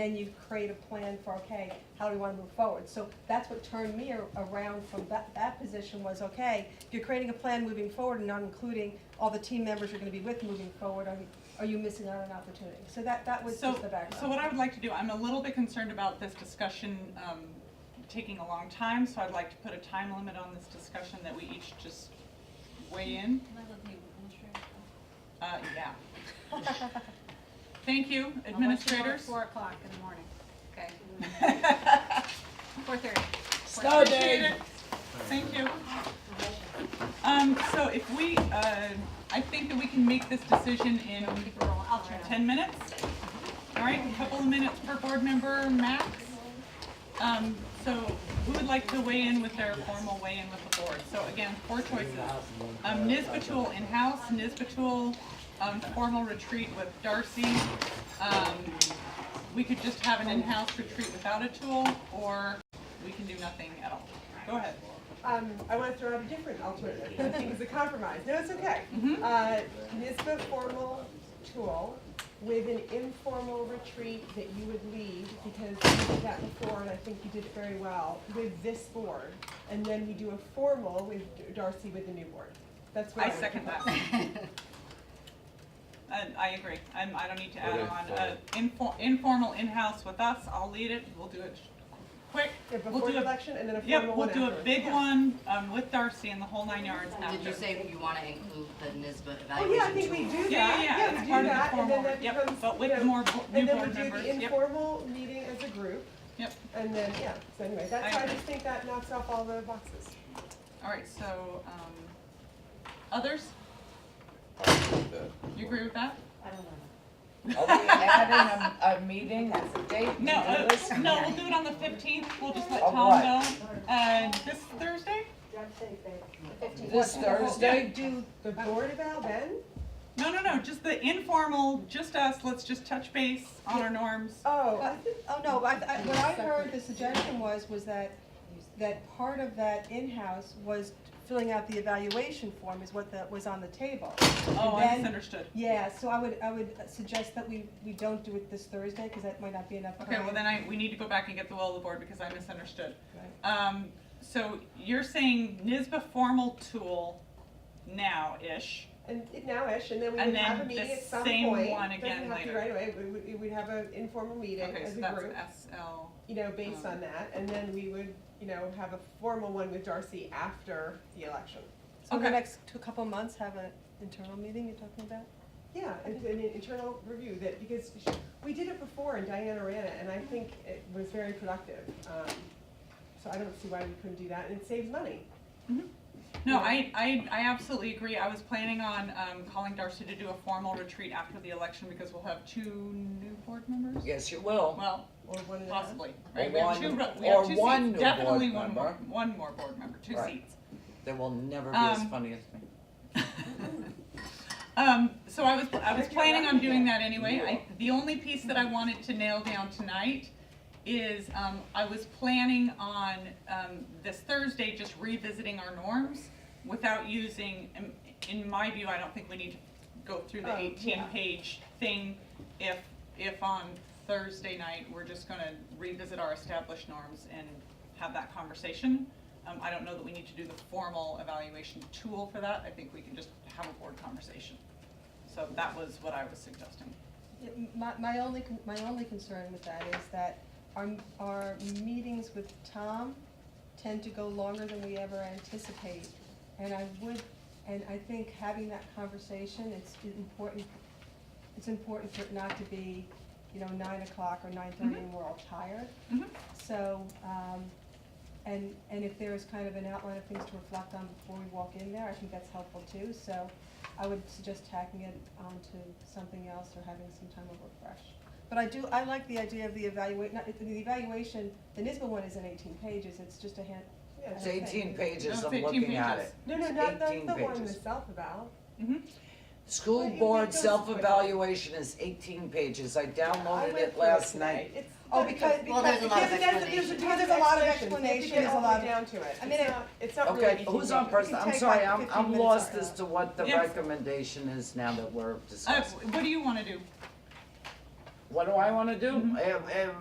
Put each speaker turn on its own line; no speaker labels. then you create a plan for, okay, how do we want to move forward? So that's what turned me ar- around from that, that position was, okay, if you're creating a plan moving forward and not including all the team members you're gonna be with moving forward, are, you- are you missing out on an opportunity? So that, that was
So,
just the background.
so what I would like to do, I'm a little bit concerned about this discussion um, taking a long time, so I'd like to put a time limit on this discussion that we each just weigh in. Uh, yeah. Thank you, administrators.
Four o'clock in the morning,
Okay.
four thirty.
Snow day. Thank you. Um, so if we, uh, I think that we can make this decision in
I'll try.
ten minutes. All right, a couple of minutes per board member max. Um, so who would like to weigh in with their formal weigh-in with the board? So again, four choices. Um, Ms. Batul in-house, Ms. Batul, um, formal retreat with Darcy. Um, we could just have an in-house retreat without a tool, or we can do nothing at all. Go ahead.
Um, I want to throw out a different alternative. I think it's a compromise. No, it's okay.
Mhm.
Uh, NISBA formal tool with an informal retreat that you would lead, because you did that before and I think you did it very well, with this board. And then we do a formal with Darcy with the new board. That's what I
I
would
second
propose.
that. And I agree, I'm, I don't need to add
Okay,
on, uh,
fine.
infor- informal in-house with us, I'll lead it, we'll do it sh- quick.
Yeah,
We'll
Before
do
the
a-
election and then a formal
Yep, we'll
one
do a
afterwards.
big
Yeah.
one, um, with Darcy and the whole nine yards after.
Did you say you wanna include the NISBA
Oh,
evaluation
yeah, I think we
tool?
do that.
Yeah, yeah, yeah,
we
it's
do
part of the
that, and then
formal,
that
yep,
becomes,
but
you
with
know,
more, bo- new
And then we
board
do
members,
the
yep,
informal meeting as a group.
Yep.
And then, yeah, so anyway, that's,
I
I
agree.
just think that knocks off all the boxes.
alright, so, um, others, you agree with that?
Having a, a meeting as a date?
No, uh,
Listen,
no, we'll do it on the fifteenth, we'll just let
Of
Tom
what?
know, uh, this Thursday?
This Thursday?
Do the Board of Al then?
No, no, no, just the informal, just us, let's just touch base on our norms.
Oh, I
But- Oh, no, I, I, what I heard, the suggestion was, was that, that part of that in-house was filling out the evaluation form is what the, was on the table.
Oh, I
then-
misunderstood.
Yeah, so I would, I would suggest that we, we don't do it this Thursday, because that might not be enough time.
Okay, well then I, we need to go back and get the will of the board because I misunderstood.
Right.
Um, so you're saying NISBA formal tool now-ish,
and it nowish, and then we
And
would have a
then the
meeting at some point.
same one again
Doesn't have to
later.
be right away, we would, we would have an informal meeting
okay,
as
so
a
that's
group,
SL,
you know, based
um,
on that, and then we would, you know, have a formal one with Darcy after the election.
So in the
Okay.
next two, couple months, have an internal meeting you're talking about?
Yeah, and and an internal review that, because sh- we did it before in Diana ran it, and I think it was very productive. Um, So I don't see why we couldn't do that, and it saves money.
No, I, I, I absolutely agree. I was planning on, um, calling Darcy to do a formal retreat after the election because we'll have two new board members.
Yes, you will.
Well,
Or one of the.
possibly, right?
Or
We have two,
one-
ru- we have
or
two
one new
seats,
board
definitely one more,
member.
one more board member, two
Right.
seats.
They will never be as
Um,
funny as me.
Um, so I was, I was
If you're
planning on
lucky,
doing
yeah.
that anyway. I, the only piece that I wanted to nail down tonight is, um, I was planning on, um, this Thursday, just revisiting our norms without using, in, in my view, I don't think we need to go through the
Oh, yeah.
eighteen page thing if, if on Thursday night, we're just gonna revisit our established norms and have that conversation. Um, I don't know that we need to do the formal evaluation tool for that, I think we can just have a board conversation. So that was what I was suggesting.
Yeah, m- My, my only, con- my only concern with that is that our, m- our meetings with Tom tend to go longer than we ever anticipate. And I would, and I think having that conversation, it's important, it's important for it not to be, you know, nine o'clock or nine thirty and we're all tired.
Mhm.
So, um, and, and if there is kind of an outline of things to reflect on before we walk in there, I think that's helpful too. So I would suggest tacking it onto something else or having some time of refresh. But I do, I like the idea of the evaluate, not, the evaluation, the NISBA one isn't eighteen pages, it's just a hand,
Yeah.
It's eighteen pages
No,
of
it's 18
looking at
pages.
it.
No, no,
It's
not, not
18
the one
pages.
with self-eval.
Mhm.
School
Well, you
board
make those-
self-evaluation is eighteen pages. I
I
downloaded
went
it
through it
last
today.
night.
It's-
Oh, because-
Well, there's a lot of
because there's- there's-
explanation.
Because there's a lot of explanation, there's a lot down to it.
I mean,
It's not- It's not really
Okay,
anything.
who's on
different.
first?
We can
I'm
take
sorry,
like
I'm,
15
I'm
minutes
lost
or-
as to what the
Yes.
recommendation is now that we're
Uh,
discussing.
what do you wanna do? Mm-hmm.
what do I wanna do? I have- I have